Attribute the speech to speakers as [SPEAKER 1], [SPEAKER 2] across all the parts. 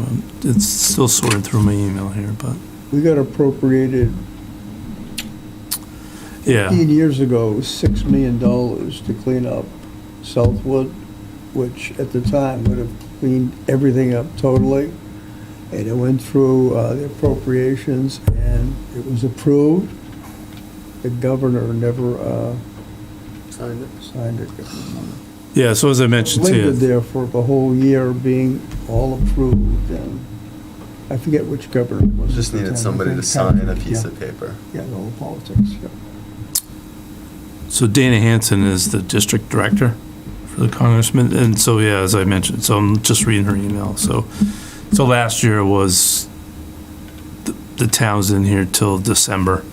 [SPEAKER 1] Um, it's still sorted through my email here, but,
[SPEAKER 2] We got appropriated
[SPEAKER 1] yeah,
[SPEAKER 2] 15 years ago, $6 million to clean up Southwood, which at the time would have cleaned everything up totally. And it went through uh, the appropriations and it was approved. The governor never uh,
[SPEAKER 3] Signed it.
[SPEAKER 2] signed it.
[SPEAKER 1] yeah, so as I mentioned to
[SPEAKER 2] Lingered
[SPEAKER 1] you,
[SPEAKER 2] there for the whole year being all approved and I forget which governor it was. at
[SPEAKER 3] Just
[SPEAKER 2] the time.
[SPEAKER 3] needed
[SPEAKER 2] I
[SPEAKER 3] somebody to
[SPEAKER 2] think
[SPEAKER 3] sign a
[SPEAKER 2] Congress,
[SPEAKER 3] piece
[SPEAKER 2] yeah.
[SPEAKER 3] of paper.
[SPEAKER 2] Yeah, the whole politics, yeah.
[SPEAKER 1] so Dana Hanson is the district director for the congressman, and so, yeah, as I mentioned, so I'm just reading her email, so, so last year was, the- the town's in here till December,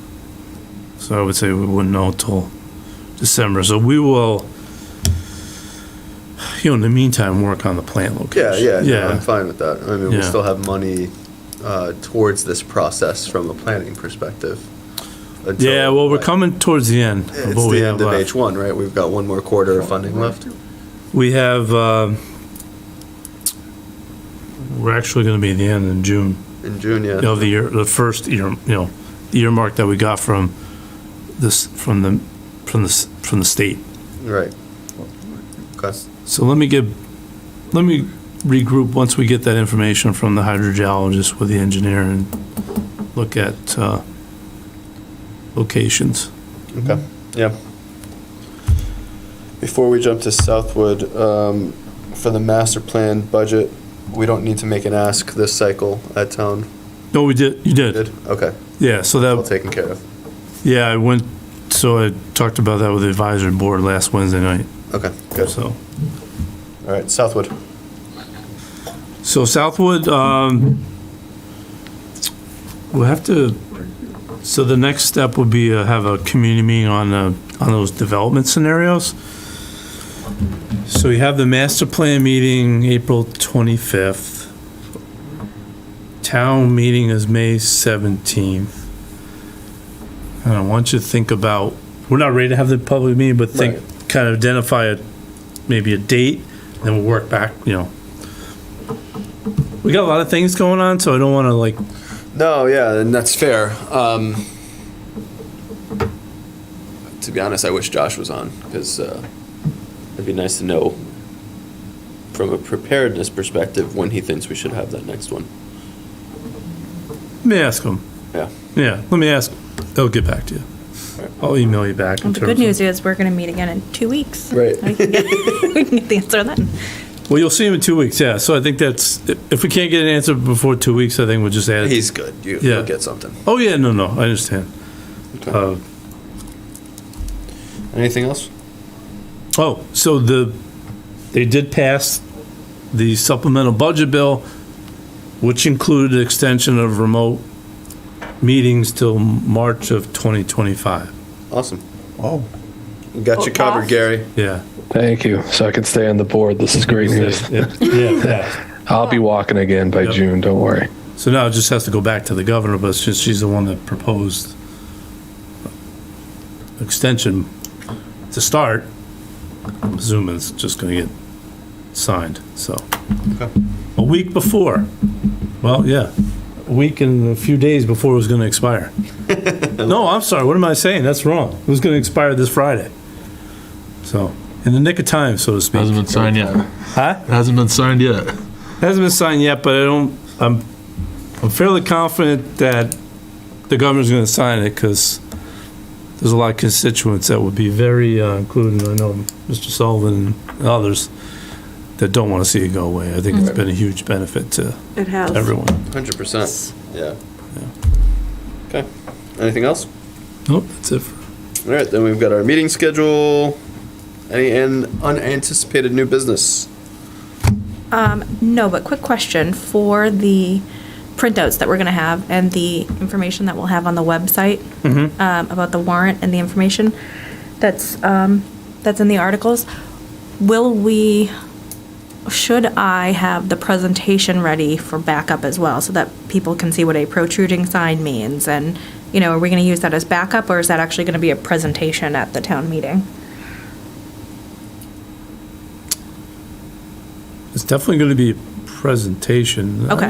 [SPEAKER 1] so I would say we wouldn't know till December, so we will, you know, in the meantime, work on the plant
[SPEAKER 3] Yeah,
[SPEAKER 1] location.
[SPEAKER 3] yeah, no, I'm
[SPEAKER 1] Yeah,
[SPEAKER 3] fine with that. I mean, we'll
[SPEAKER 1] Yeah.
[SPEAKER 3] still have money uh, towards this process from a planning perspective. until,
[SPEAKER 1] yeah, well, we're
[SPEAKER 3] like,
[SPEAKER 1] coming towards the end
[SPEAKER 3] It's
[SPEAKER 1] of what we
[SPEAKER 3] the
[SPEAKER 1] have uh,
[SPEAKER 3] end
[SPEAKER 1] left.
[SPEAKER 3] of H1, right? We've got one more quarter of funding left.
[SPEAKER 1] We have, uh, we're actually going to be at the end in June
[SPEAKER 3] In June, yeah.
[SPEAKER 1] of the year, the first year, you know, the earmark that we got from this, from the, from the, s- from the state.
[SPEAKER 3] Right. Okay.
[SPEAKER 1] So let me get, let me regroup once we get that information from the hydrogeologist with the engineer and look at uh, locations.
[SPEAKER 3] Okay, yeah. Before we jump to Southwood, um, for the master plan budget, we don't need to make an ask this cycle at town.
[SPEAKER 1] No, we did, you did.
[SPEAKER 3] Good, okay,
[SPEAKER 1] Yeah, so
[SPEAKER 3] well
[SPEAKER 1] that,
[SPEAKER 3] taken care of.
[SPEAKER 1] yeah, I went, so I talked about that with the advisory board last Wednesday night,
[SPEAKER 3] Okay, good.
[SPEAKER 1] so.
[SPEAKER 3] All right, Southwood.
[SPEAKER 1] So Southwood, um, we'll have to, so the next step would be to have a community meeting on, uh, on those development scenarios. So you have the master plan meeting April 25th. Town meeting is May 17th. And I want you to think about, we're not ready to have the public meeting, but think, kind of identify a, maybe a date, then we'll work back, you know, we got a lot of things going on, so I don't want to like.
[SPEAKER 3] No, yeah, and that's fair. Um, to be honest, I wish Josh was on because uh, it'd be nice to know from a preparedness perspective when he thinks we should have that next one.
[SPEAKER 1] Let me ask him.
[SPEAKER 3] Yeah.
[SPEAKER 1] Yeah, let me ask. I'll get back to you. I'll email you back.
[SPEAKER 4] Well,
[SPEAKER 1] terms
[SPEAKER 4] the good
[SPEAKER 1] of-
[SPEAKER 4] news is we're going to meet again in two weeks.
[SPEAKER 3] Right.
[SPEAKER 4] We can get we can get the answer then.
[SPEAKER 1] Well, you'll see him in two weeks. Yeah, so I think that's if we can't get an answer before two weeks, I think we'll just add. it.
[SPEAKER 3] He's good. You,
[SPEAKER 1] Yeah.
[SPEAKER 3] You'll get something.
[SPEAKER 1] oh yeah, no, no, I understand. Uh,
[SPEAKER 3] Anything else?
[SPEAKER 1] oh, so the they did pass the supplemental budget bill, which included extension of remote meetings till March of 2025.
[SPEAKER 3] Awesome.
[SPEAKER 2] Oh.
[SPEAKER 3] We got you covered, Gary.
[SPEAKER 1] Yeah,
[SPEAKER 5] Thank you. So I can stay on the board. This is great news.
[SPEAKER 1] yeah, yeah, passed.
[SPEAKER 5] I'll be walking again by
[SPEAKER 1] Yep.
[SPEAKER 5] June. Don't worry.
[SPEAKER 1] So now it just has to go back to the governor, but since she's the one that proposed extension to start, I'm assuming it's just gonna get signed, so.
[SPEAKER 3] Okay.
[SPEAKER 1] A week before, well, yeah, a week and a few days before it was gonna expire. No, I'm sorry, what am I saying? That's wrong. It was gonna expire this Friday. So, in the nick of time, so to speak.
[SPEAKER 6] Hasn't been signed yet.
[SPEAKER 1] Huh?
[SPEAKER 6] Hasn't been signed yet.
[SPEAKER 1] Hasn't been signed yet, but I don't, I'm, I'm fairly confident that the governor's gonna sign it, because there's a lot of constituents that would be very, uh, including, I know, Mr. Sullivan and others, that don't wanna see it go away. I think it's been a huge benefit to
[SPEAKER 7] It has.
[SPEAKER 1] everyone.
[SPEAKER 3] 100%. Yeah. Okay. Anything else?
[SPEAKER 1] Nope, that's it.
[SPEAKER 3] All right, then we've got our meeting schedule. Any an unanticipated new business?
[SPEAKER 4] Um, no, but quick question for the printouts that we're going to have and the information that we'll have on the website um, about the warrant and the information that's um, that's in the articles. Will we? Should I have the presentation ready for backup as well, so that people can see what a protruding sign means? And you know, are we going to use that as backup, or is that actually going to be a presentation at the town meeting?
[SPEAKER 1] It's definitely gonna be a presentation.
[SPEAKER 4] Okay.